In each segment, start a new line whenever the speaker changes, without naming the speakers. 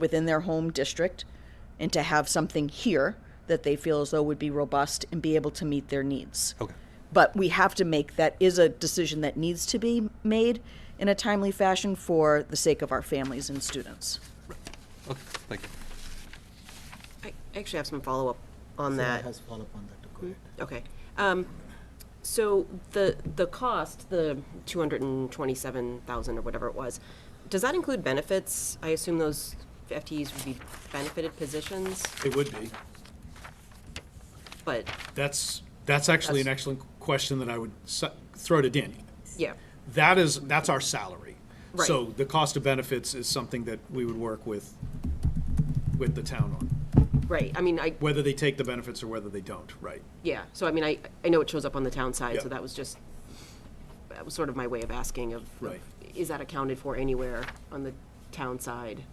within their home district and to have something here that they feel as though would be robust and be able to meet their needs.
Okay.
But we have to make that is a decision that needs to be made in a timely fashion for the sake of our families and students.
Okay, thank you.
I actually have some follow-up on
Sarah
that.
has follow-up on that, go ahead.
Okay. Um, So the, the cost, the 227,000 or whatever it was, does that include benefits? I assume those FTEs would be benefited positions,
It would be.
but,
That's, that's actually an
That's-
excellent question that I would su- throw to Danny.
yeah,
That is, that's our salary.
Right.
So the cost of benefits is something that we would work with, with the town on,
right. I mean, I,
whether they take the benefits or whether they don't, right?
yeah, so I mean, I, I know it shows up on the town side, so
Yeah.
that was just, that was sort of my way of asking of, of,
Right.
is that accounted for anywhere on the town side?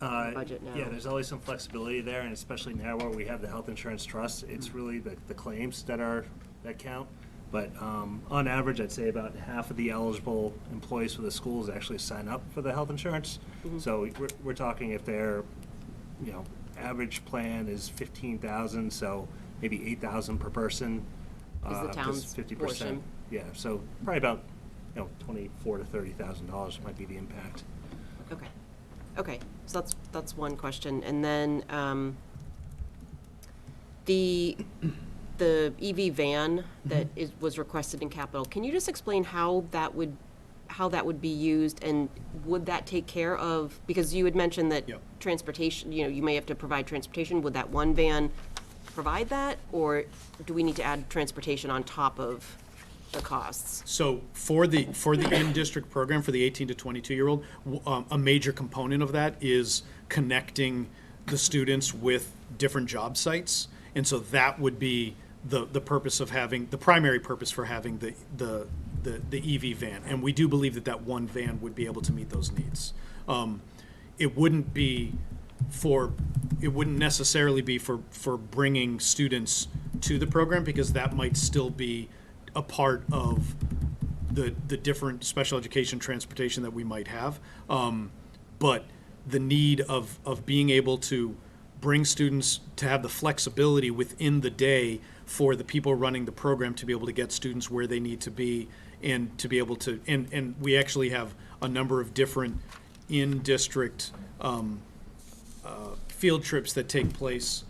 Uh,
budget now.
Yeah, there's always some flexibility there, and especially now where we have the health insurance trust, it's
Mm-hmm.
really the, the claims that are, that count. But um, on average, I'd say about half of the eligible employees for the schools actually sign up for the health insurance.
Mm-hmm.
So we're, we're talking if their, you know, average plan is fifteen thousand, so maybe eight thousand per person. uh,
Is the town's
Fifty
portion.
percent. Yeah, so probably about, you know, twenty-four to thirty thousand dollars might be the impact.
Okay, okay, so that's, that's one question, and then, um, the, the EV van that is, was requested in capital, can you just explain how that would, how that would be used, and would that take care of, because you had mentioned that
Yep.
transportation, you know, you may have to provide transportation, would that one van provide that, or do we need to add transportation on top of the costs?
So for the, for the in-district program, for the 18 to 22-year-old, w- um, a major component of that is connecting the students with different job sites. And so that would be the, the purpose of having, the primary purpose for having the, the, the the EV van. And we do believe that that one van would be able to meet those needs. Um, It wouldn't be for, it wouldn't necessarily be for, for bringing students to the program because that might still be a part of the, the different special education transportation that we might have. Um, but the need of, of being able to bring students to have the flexibility within the day for the people running the program to be able to get students where they need to be and to be able to, and, and we actually have a number of different in-district, um, field trips that take place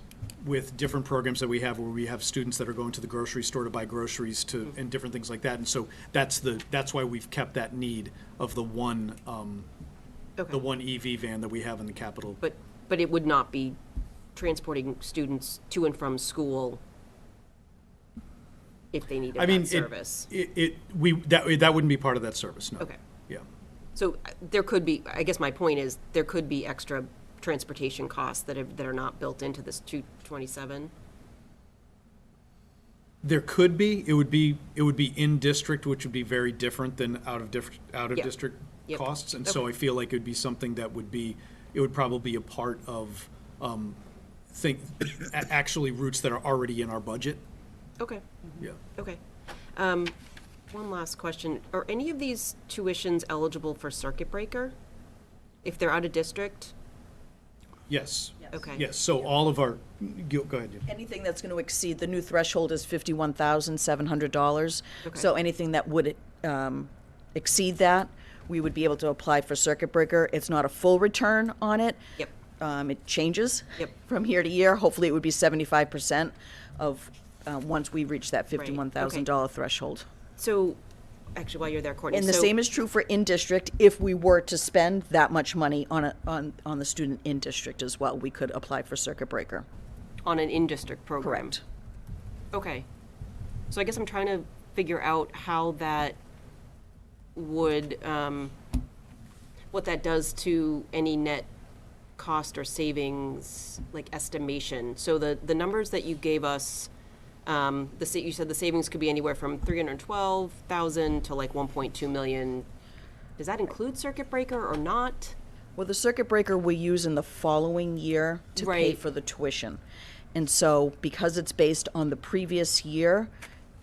with different programs that we have where we have students that are going to the grocery store to buy groceries to and different things like that and so that's the that's why we've kept that need of the one um,
Okay.
the one EV van that we have in the capital
But, but it would not be transporting students to and from school if they needed
I mean
that
it-
service?
It, it we that that wouldn't be part of that service no
Okay.
yeah
So uh, there could be, I guess my point is, there could be extra transportation costs that are, that are not built into this 227?
there could be it would be it would be in district which would be very different than out of diff, out of
Yeah.
district
Yep.
costs and so
Okay.
I feel like it would be something that would be it would probably be a part of um, think a- actually routes that are already in our budget.
Okay,
Yeah.
okay. Um, One last question. Are any of these tuitions eligible for circuit breaker? If they're out of district?
Yes.
Okay.
Yes. So all of our go, go ahead. Jim.
Anything that's going to exceed, the new threshold is fifty-one thousand seven hundred dollars.
Okay.
So anything that would um, exceed that, we would be able to apply for circuit breaker. It's not a full return on it.
Yep.
Um, It changes.
Yep.
From year to year. Hopefully, it would be seventy-five percent of, uh, once we reach that
okay.
fifty-one thousand dollar threshold.
So, actually, while you're there, Courtney,
And the
so-
same is true for in-district. If we were to spend that much money on, a- on, on the student in-district as well, we could apply for circuit breaker.
on an in-district program.
Correct.
Okay. So I guess I'm trying to figure out how that would, um, what that does to any net cost or savings, like estimation. So the, the numbers that you gave us, um, the, sa- you said the savings could be anywhere from three hundred and twelve thousand to like one point two million. Does that include circuit breaker or not?
Well, the circuit breaker we use in the following year to pay
Right.
for the tuition. And so because it's based on the previous year,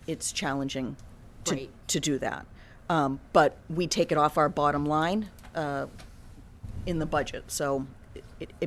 it's challenging to,
Right.
to do that. Um, But we take it off our bottom line uh, in the budget. So